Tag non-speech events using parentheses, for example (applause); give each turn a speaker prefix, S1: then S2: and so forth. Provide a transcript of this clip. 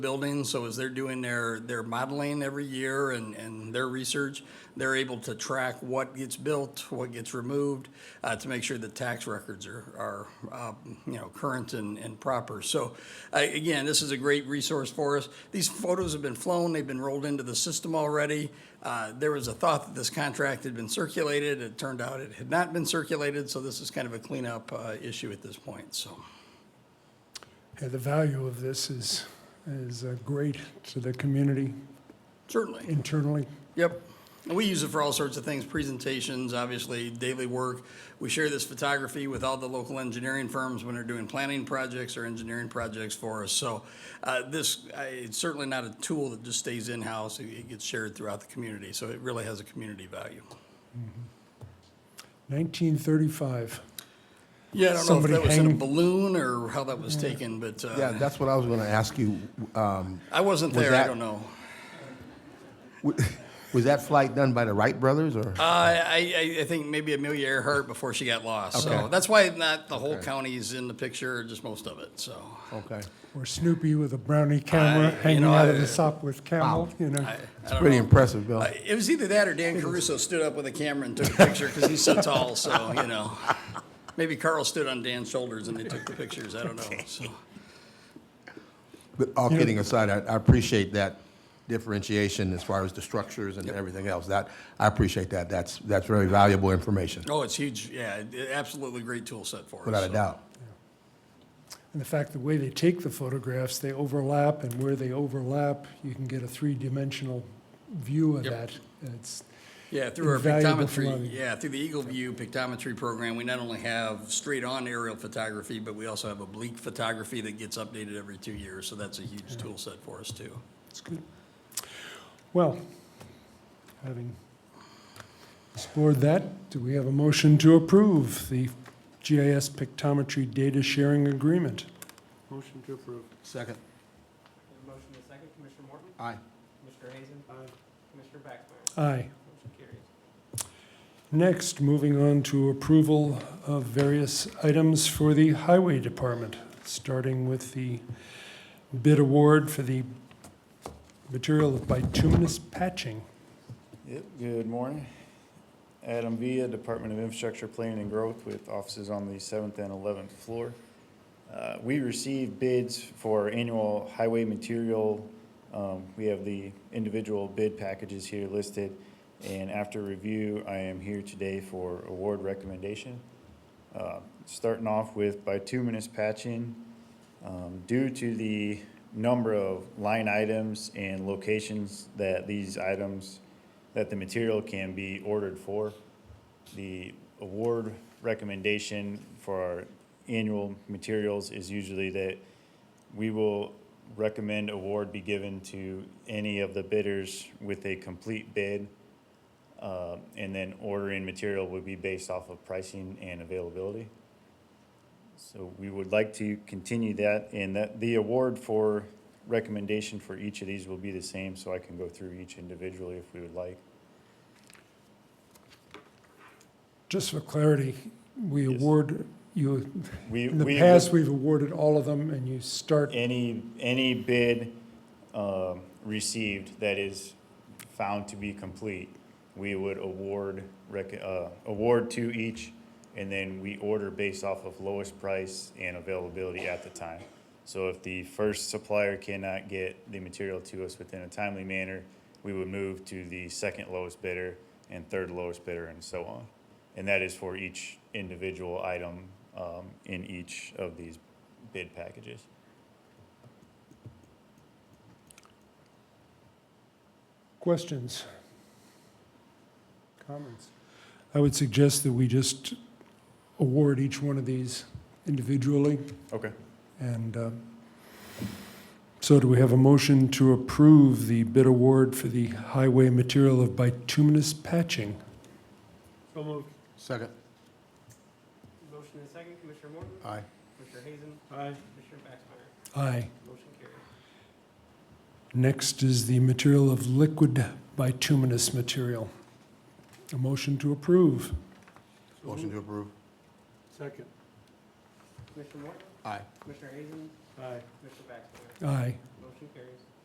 S1: building, so as they're doing their, their modeling every year and, and their research, they're able to track what gets built, what gets removed, uh, to make sure the tax records are, are, uh, you know, current and, and proper. So, I, again, this is a great resource for us. These photos have been flown, they've been rolled into the system already. Uh, there was a thought that this contract had been circulated, it turned out it had not been circulated, so this is kind of a cleanup, uh, issue at this point, so.
S2: Yeah, the value of this is, is uh, great to the community
S1: Certainly.
S2: internally.
S1: Yep. And we use it for all sorts of things, presentations, obviously, daily work. We share this photography with all the local engineering firms when they're doing planning projects or engineering projects for us. So uh, this, I- it's certainly not a tool that just stays in-house. It- It gets shared throughout the community, so it really has a community value.
S2: 1935.
S1: Yeah, I don't know if
S2: Somebody
S1: that was in a
S2: hang-
S1: balloon or how that was taken, but uh,
S3: Yeah, that's what I was going to ask you. Um,
S1: I wasn't
S3: Was
S1: there, I
S3: that-
S1: don't know.
S3: w- (laughs) Was that flight done by the Wright brothers or?
S1: Uh, I, I, I think maybe Amelia Earhart before she got lost. So
S3: Okay.
S1: that's why not the whole county's in the picture, just most of it, so.
S3: Okay.
S2: Or Snoopy with a brownie camera
S1: I- you
S2: hanging
S1: know,
S2: out of
S1: I-
S2: the Sopwith Camel, you know.
S1: I- I don't
S3: Pretty
S1: know.
S3: impressive, Bill.
S1: Uh, It was either that or Dan Caruso stood up with a camera and took a picture because he's so tall. So you know, maybe Carl stood on Dan's shoulders and they took the pictures. I don't know. So
S3: But all kidding aside, I, I appreciate that differentiation as far as the structures and everything else. That, I appreciate that. That's, that's very valuable information,
S1: oh, it's huge. Yeah, it- it- absolutely great tool set for us.
S3: without a
S1: so.
S3: doubt.
S2: And the fact, the way they take the photographs, they overlap, and where they overlap, you can get a three-dimensional view of
S1: Yep.
S2: that. It's,
S1: Yeah, through our
S2: Invaluable
S1: pictometry.
S2: commodity.
S1: Yeah, through the Eagle View pictometry program, we not only have straight on aerial photography, but we also have oblique photography that gets updated every two years. So that's a huge tool set for us too.
S2: it's good. Well, having explored that, do we have a motion to approve the GIS pictometry data sharing agreement?
S3: Motion to approve. Second.
S4: We have a motion and a second. Commissioner Morton?
S3: Aye.
S4: Commissioner Hazen? Commissioner Backsmyer?
S2: Aye.
S4: Motion carries.
S2: Next, moving on to approval of various items for the Highway Department, starting with the bid award for the material of bituminous patching.
S5: Yep, good morning. Adam Villa, Department of Infrastructure Planning and Growth with offices on the seventh and eleventh floor. Uh, We received bids for annual highway material. Um, We have the individual bid packages here listed. And after review, I am here today for award recommendation. Uh, Starting off with bituminous patching. Um, Due to the number of line items and locations that these items, that the material can be ordered for, the award recommendation for our annual materials is usually that we will recommend award be given to any of the bidders with a complete bid. uh, And then ordering material would be based off of pricing and availability. So we would like to continue that, and that the award for recommendation for each of these will be the same, so I can go through each individually if we would like.
S2: Just for clarity, we
S5: Yes.
S2: award, you,
S5: We,
S2: in the
S5: we,
S2: past, we've awarded all of them, and you start,
S5: any, any bid, um, received that is found to be complete, we would award, rec, uh, award to each, and then we order based off of lowest price and availability at the time. So if the first supplier cannot get the material to us within a timely manner, we would move to the second lowest bidder and third lowest bidder and so on. And that is for each individual item, um, in each of these bid packages.
S2: questions? Comments? I would suggest that we just award each one of these individually.
S5: Okay.
S2: And uh, so do we have a motion to approve the bid award for the highway material of bituminous patching?
S3: Second.
S4: Motion and a second. Commissioner Morton?
S3: Aye.
S4: Commissioner Hazen? Aye. Commissioner Backsmyer?
S2: Aye.
S4: Motion carries.
S2: Next is the material of liquid bituminous material. A motion to approve.
S3: Motion to approve.
S2: Second.
S4: Commissioner Morton?
S3: Aye.
S4: Commissioner Hazen?
S2: Aye.
S4: Commissioner Backsmyer?
S2: Aye.
S4: Motion Motion carries.